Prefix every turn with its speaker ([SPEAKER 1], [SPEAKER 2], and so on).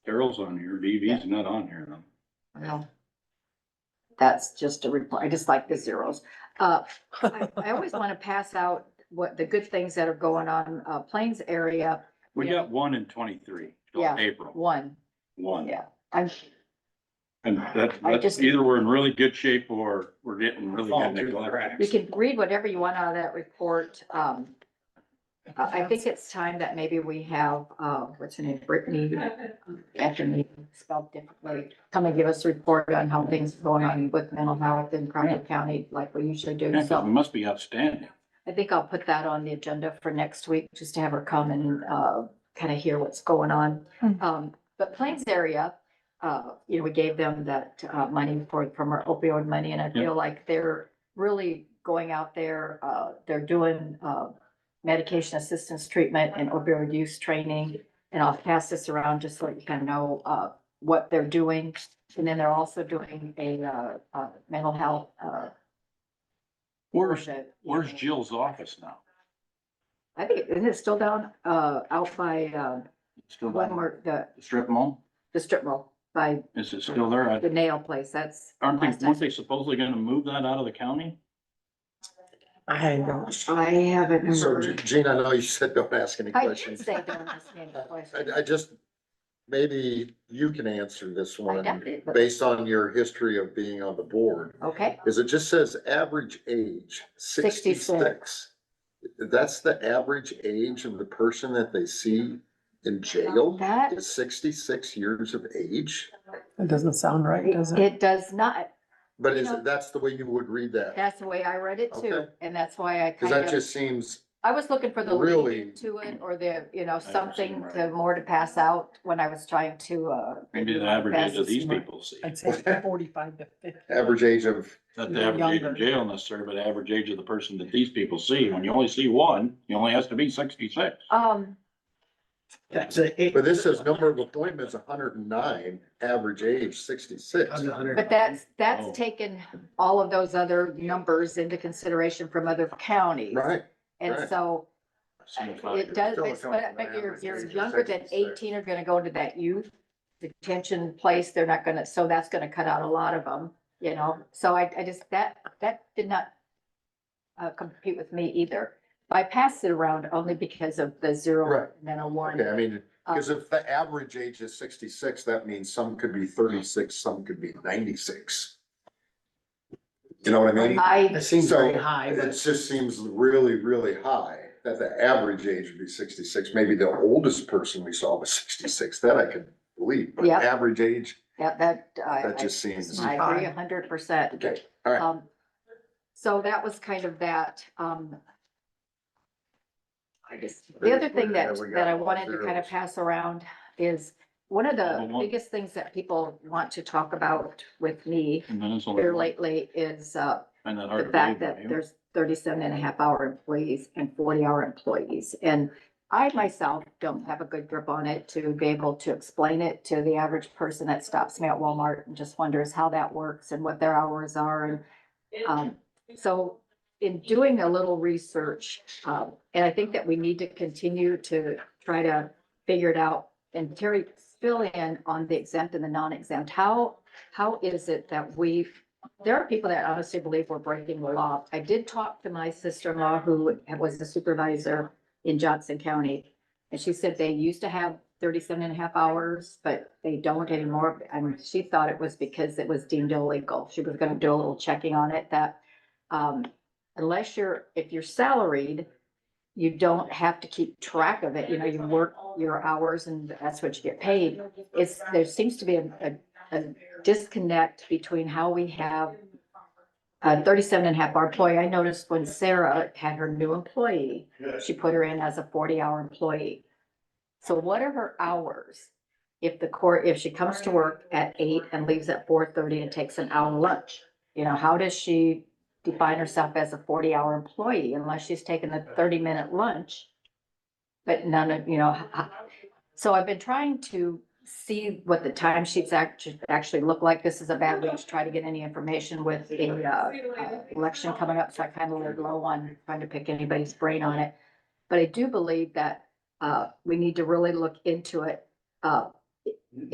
[SPEAKER 1] Carl's on here, DV's not on here though.
[SPEAKER 2] Well, that's just a reply, I just like the zeros. Uh, I, I always want to pass out what the good things that are going on, uh, Plains area,
[SPEAKER 1] We
[SPEAKER 2] Yeah.
[SPEAKER 1] got one in twenty-three, till
[SPEAKER 2] Yeah.
[SPEAKER 1] April,
[SPEAKER 2] one,
[SPEAKER 1] one.
[SPEAKER 2] yeah. I'm,
[SPEAKER 1] And that,
[SPEAKER 2] I
[SPEAKER 1] that's
[SPEAKER 2] just-
[SPEAKER 1] either we're in really good shape or we're getting really
[SPEAKER 3] Fall through
[SPEAKER 1] good
[SPEAKER 3] the
[SPEAKER 1] neglect.
[SPEAKER 3] cracks.
[SPEAKER 2] you can read whatever you want out of that report. Um, uh, I, I think it's time that maybe we have, uh, what's her name, Brittany, after me, spelled differently, come and give us a report on how things are going on with mental health in Crawford County, like we usually do,
[SPEAKER 1] Yeah, 'cause
[SPEAKER 2] so.
[SPEAKER 1] we must be outstanding.
[SPEAKER 2] I think I'll put that on the agenda for next week, just to have her come and, uh, kind of hear what's going on.
[SPEAKER 4] Mm.
[SPEAKER 2] Um, but Plains area, uh, you know, we gave them that, uh, money for, from our opioid money, and I
[SPEAKER 1] Yeah.
[SPEAKER 2] feel like they're really going out there, uh, they're doing, uh, medication assistance treatment and opioid use training. And I'll pass this around just so you kind of know, uh, what they're doing. And then they're also doing a, uh, uh, mental health, uh.
[SPEAKER 1] Where's,
[SPEAKER 2] workshop, you
[SPEAKER 1] where's
[SPEAKER 2] know.
[SPEAKER 1] Jill's office now?
[SPEAKER 2] I think, isn't it still down, uh, out by, uh,
[SPEAKER 1] Still
[SPEAKER 2] one
[SPEAKER 1] down
[SPEAKER 2] more, the,
[SPEAKER 1] the strip mall?
[SPEAKER 2] the strip mall, by
[SPEAKER 1] Is it still there?
[SPEAKER 2] the
[SPEAKER 1] I-
[SPEAKER 2] nail place, that's.
[SPEAKER 1] Aren't
[SPEAKER 2] last
[SPEAKER 1] they,
[SPEAKER 2] I-
[SPEAKER 1] weren't they supposedly gonna move that out of the county?
[SPEAKER 4] I don't.
[SPEAKER 2] I haven't
[SPEAKER 5] So
[SPEAKER 2] heard.
[SPEAKER 5] Gene, I know you said don't ask any
[SPEAKER 2] I did
[SPEAKER 5] questions.
[SPEAKER 2] say don't ask me any questions.
[SPEAKER 5] I, I just, maybe you can answer this
[SPEAKER 2] I doubt
[SPEAKER 5] one
[SPEAKER 2] it, but-
[SPEAKER 5] based on your history of being on the board.
[SPEAKER 2] Okay,
[SPEAKER 5] Is it just says average age sixty-six? That's the average age of the person that they see in jail
[SPEAKER 2] that,
[SPEAKER 5] is sixty-six years of age?
[SPEAKER 4] It doesn't sound right, does it?
[SPEAKER 2] it does not,
[SPEAKER 5] But
[SPEAKER 2] You
[SPEAKER 5] is,
[SPEAKER 2] know-
[SPEAKER 5] that's the way you would read that?
[SPEAKER 2] that's the way I read it too,
[SPEAKER 5] Okay.
[SPEAKER 2] and that's why I
[SPEAKER 5] Cause
[SPEAKER 2] kind
[SPEAKER 5] that
[SPEAKER 2] of,
[SPEAKER 5] just seems
[SPEAKER 2] I was looking for the
[SPEAKER 5] really-
[SPEAKER 2] lead to it, or the, you know,
[SPEAKER 1] see
[SPEAKER 2] something
[SPEAKER 1] right.
[SPEAKER 2] to more to pass out when I was trying to, uh.
[SPEAKER 1] Maybe the average
[SPEAKER 2] pass
[SPEAKER 1] age of
[SPEAKER 2] this
[SPEAKER 1] these
[SPEAKER 2] more.
[SPEAKER 1] people see.
[SPEAKER 4] I'd say forty-five to fifty.
[SPEAKER 5] average age of,
[SPEAKER 1] Not the average age
[SPEAKER 4] Younger.
[SPEAKER 1] in jail necessarily, but the average age of the person that these people see. When you only see one, you only has to be sixty-six.
[SPEAKER 2] Um,
[SPEAKER 3] That's a.
[SPEAKER 5] but this says number of appointments hundred and nine, average age sixty-six.
[SPEAKER 2] But that's,
[SPEAKER 1] Oh.
[SPEAKER 2] that's taken all of those other numbers into consideration from other counties.
[SPEAKER 5] Right,
[SPEAKER 2] And
[SPEAKER 5] right.
[SPEAKER 2] so uh, it does,
[SPEAKER 5] Still
[SPEAKER 2] it's-
[SPEAKER 5] counting
[SPEAKER 2] but, but
[SPEAKER 5] the
[SPEAKER 2] you're,
[SPEAKER 5] average age
[SPEAKER 2] you're
[SPEAKER 5] of
[SPEAKER 2] younger than
[SPEAKER 5] 66.
[SPEAKER 2] eighteen are gonna go into that youth detention place. They're not gonna, so that's gonna cut out a lot of them, you know? So I, I just, that, that did not uh, compete with me either. I passed it around only because of the zero
[SPEAKER 5] Right.
[SPEAKER 2] and then a one.
[SPEAKER 5] Okay, I mean,
[SPEAKER 2] Uh,
[SPEAKER 5] because if the average age is sixty-six, that means some could be thirty-six, some could be ninety-six. You know what I mean?
[SPEAKER 2] I,
[SPEAKER 3] That seems
[SPEAKER 5] So,
[SPEAKER 3] very high,
[SPEAKER 5] It
[SPEAKER 3] but
[SPEAKER 5] just seems really, really high, that the average age would be sixty-six, maybe the oldest person we saw was sixty-six, that I could believe, but
[SPEAKER 2] Yeah.
[SPEAKER 5] average age,
[SPEAKER 2] that, that, I,
[SPEAKER 5] that
[SPEAKER 2] I-
[SPEAKER 5] just seems.
[SPEAKER 2] I agree a hundred percent.
[SPEAKER 5] Okay, all right,
[SPEAKER 2] Um, so that was kind of that, um. I just, the other thing that,
[SPEAKER 5] There we go.
[SPEAKER 2] that I wanted to kind of
[SPEAKER 5] Zeros.
[SPEAKER 2] pass around is one of the
[SPEAKER 1] Number one.
[SPEAKER 2] biggest things that people want to talk about with me
[SPEAKER 1] And then it's only.
[SPEAKER 2] here lately is, uh,
[SPEAKER 1] Find that hard
[SPEAKER 2] the
[SPEAKER 1] to
[SPEAKER 2] fact
[SPEAKER 1] believe,
[SPEAKER 2] that
[SPEAKER 1] don't you?
[SPEAKER 2] there's 37 and a half hour employees and forty hour employees. And I myself don't have a good grip on it to be able to explain it to the average person that stops me at Walmart and just wonders how that works and what their hours are and, um, so in doing a little research, um, and I think that we need to continue to try to figure it out. And Terry, fill in on the exempt and the non-exempt. How, how is it that we there are people that honestly believe we're breaking the law. I did talk to my sister-in-law who was the supervisor in Johnson County. And she said they used to have 37 and a half hours, but they don't anymore. And she thought it was because it was deemed illegal. She was gonna do a little checking on it that, um, unless you're, if you're salaried, you don't have to keep track of it. You know, you work your hours and that's what you get paid. It's, there seems to be a, a a disconnect between how we have a 37 and a half hour employee. I noticed when Sarah had her new employee, she put her in as a forty hour employee. So what are her hours? If the court, if she comes to work at eight and leaves at four thirty and takes an hour lunch, you know, how does she define herself as a forty hour employee unless she's taken a thirty minute lunch? But none of, you know, h- h- so I've been trying to see what the time sheets actually, actually look like. This is a bad week to try to get any information with the, uh, uh, election coming up, so I kind of laid low on trying to pick anybody's brain on it. But I do believe that, uh, we need to really look into it, uh,